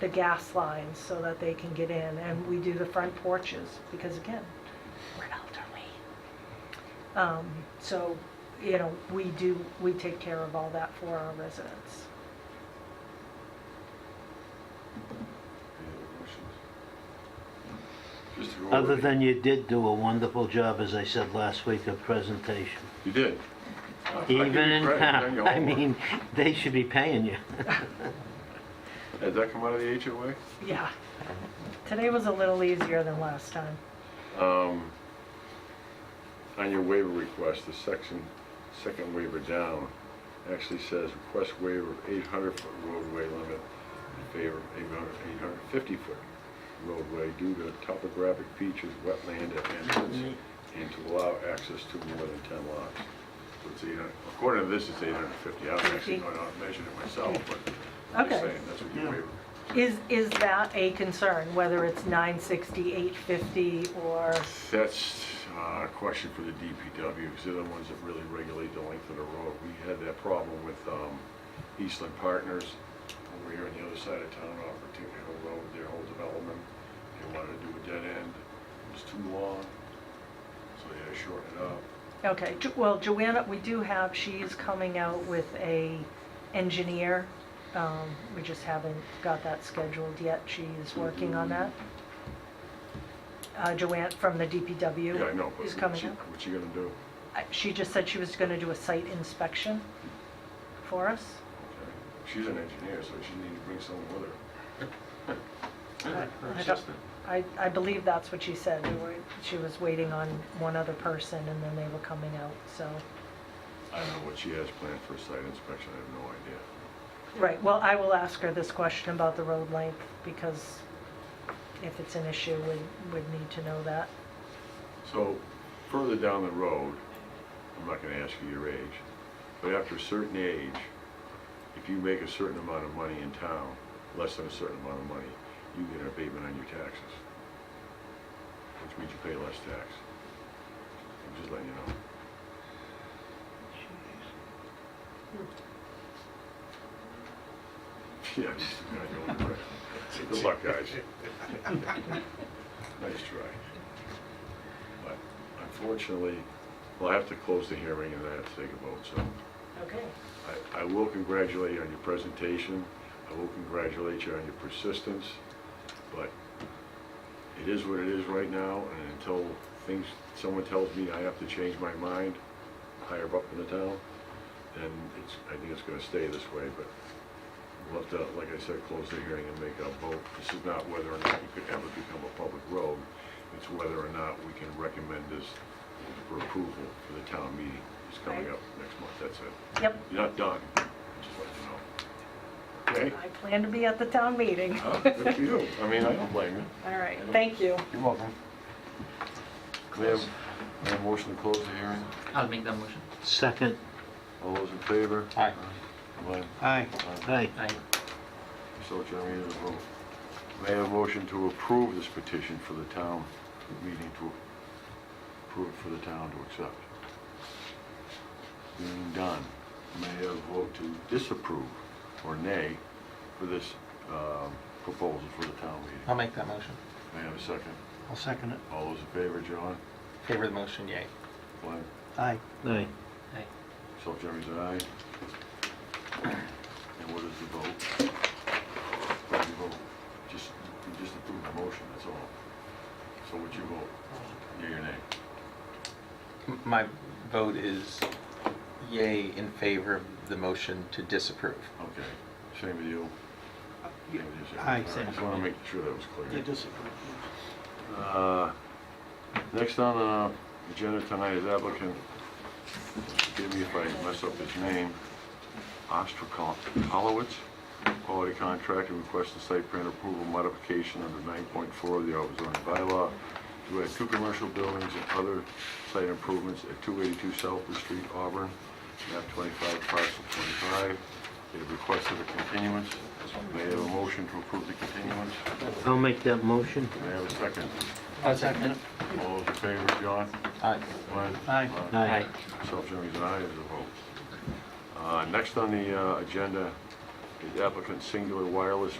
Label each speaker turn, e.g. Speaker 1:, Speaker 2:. Speaker 1: the gas lines so that they can get in, and we do the front porches, because again, we're elderly. Um, So, you know, we do, we take care of all that for our residents.
Speaker 2: Any other questions? Just to go over
Speaker 3: Other
Speaker 2: it.
Speaker 3: than you did do a wonderful job, as I said last week, of presentation.
Speaker 2: You did. I- I give you
Speaker 3: Even in
Speaker 2: credit, you've done
Speaker 3: town,
Speaker 2: your
Speaker 3: I
Speaker 2: homework.
Speaker 3: mean, they should be paying you.
Speaker 2: Did that come out of the HOA?
Speaker 1: Yeah. Today was a little easier than last time.
Speaker 2: Um, On your waiver request, the section, second waiver down, actually says request waiver of 800-foot roadway limit in favor of 850-foot roadway due to topographic features, wetland at entrance, and to allow access to more than 10 lots. So it's 800 According to this, it's 850. I haven't actually gone out and measured it myself, but I'm just
Speaker 1: Okay.
Speaker 2: saying, that's what your waiver.
Speaker 1: Is, is that a concern, whether it's 960, 850, or,
Speaker 2: That's uh, a question for the DPW, because they're the ones that really regulate the length of the road. We had that problem with um, Eastland Partners over here on the other side of town, off Virginia Hill Road, their whole development. They wanted to do a dead end, it was too long, so they had to shorten it up.
Speaker 1: okay, Jo- well, Joanna, we do have, she is coming out with a engineer. Um, We just haven't got that scheduled yet. She is working on that. Uh, Joanne from the DPW.
Speaker 2: Yeah, I know, but
Speaker 1: Is
Speaker 2: what's
Speaker 1: coming
Speaker 2: she,
Speaker 1: out.
Speaker 2: what's she gonna do?
Speaker 1: I- She just said she was going to do a site inspection for us.
Speaker 2: Okay. She's an engineer, so she needs to bring someone with her.
Speaker 1: I- I
Speaker 2: Her
Speaker 1: don't-
Speaker 2: assistant.
Speaker 1: I, I believe that's what she said. They were- She was waiting on one other person and then they were coming out, so.
Speaker 2: I don't know what she has planned for a site inspection, I have no idea.
Speaker 1: Right, well, I will ask her this question about the road length because if it's an issue, we would need to know that.
Speaker 2: So, further down the road, I'm not gonna ask you your age, but after a certain age, if you make a certain amount of money in town, less than a certain amount of money, you get an abatement on your taxes, which means you pay less tax. I'm just letting you know. Yeah, I'm just gonna go over it. Good luck, guys. Nice try. But unfortunately, we'll have to close the hearing and then have to take a vote, so
Speaker 1: Okay.
Speaker 2: I, I will congratulate you on your presentation, I will congratulate you on your persistence, but it is what it is right now, and until things, someone tells me I have to change my mind higher up in the town, then it's, I think it's gonna stay this way, but we'll have to, like I said, close the hearing and make a vote. This is not whether or not you could ever become a public road, it's whether or not we can recommend this for approval for the town meeting. It's coming
Speaker 1: Right.
Speaker 2: up next month, that's it.
Speaker 1: Yep,
Speaker 2: You're not done, just let you know.
Speaker 1: I plan to be at the town meeting.
Speaker 2: Okay? Good for you. I mean, I don't blame you.
Speaker 1: All right, thank you.
Speaker 2: You're welcome. May I have- may I have a motion to close the hearing?
Speaker 4: I'll make that motion.
Speaker 3: Second,
Speaker 2: All those in favor?
Speaker 4: Aye.
Speaker 2: Glenn?
Speaker 5: Aye.
Speaker 3: aye.
Speaker 4: Aye.
Speaker 2: So Jeremy is a vote. May I have a motion to approve this petition for the town meeting to, approve it for the town to accept? Being done, may I have a vote to disapprove or nay for this um, proposal for the town meeting?
Speaker 5: I'll make that motion.
Speaker 2: May I have a second?
Speaker 5: I'll second it.
Speaker 2: All those in favor, John?
Speaker 5: Favor the motion, yay.
Speaker 2: Glenn?
Speaker 5: Aye.
Speaker 3: Aye.
Speaker 4: Aye.
Speaker 2: Myself, Jeremy's an aye. And what is the vote? What do you vote? Just, you just approve the motion, that's all. So what you vote? Yea or nay?
Speaker 5: M- My vote is yay in favor of the motion to disapprove.
Speaker 2: Okay, same with you? Same with you, same with you.
Speaker 5: Aye,
Speaker 2: All right,
Speaker 5: same.
Speaker 2: Just wanna make sure that was clear.
Speaker 5: disapprove.
Speaker 2: Uh, Next on the agenda tonight is applicant, forgive me if I mess up his name, Ostrakolowitz, quality contractor, requests a site plan approval modification under 9.4 of the Auburn zoning bylaw to add two commercial buildings and other site improvements at 282 Southwood Street, Auburn, map 25, parcel 25. They have requested a continuance. May I have a motion to approve the continuance?
Speaker 3: I'll make that motion.
Speaker 2: May I have a second?
Speaker 5: I'll second it.
Speaker 2: All those in favor, John?
Speaker 5: Aye.
Speaker 2: Glenn?
Speaker 5: Aye.
Speaker 3: Aye.
Speaker 2: Myself, Jeremy's an aye, there's a vote. Uh, Next on the uh, agenda is applicant Singular Wireless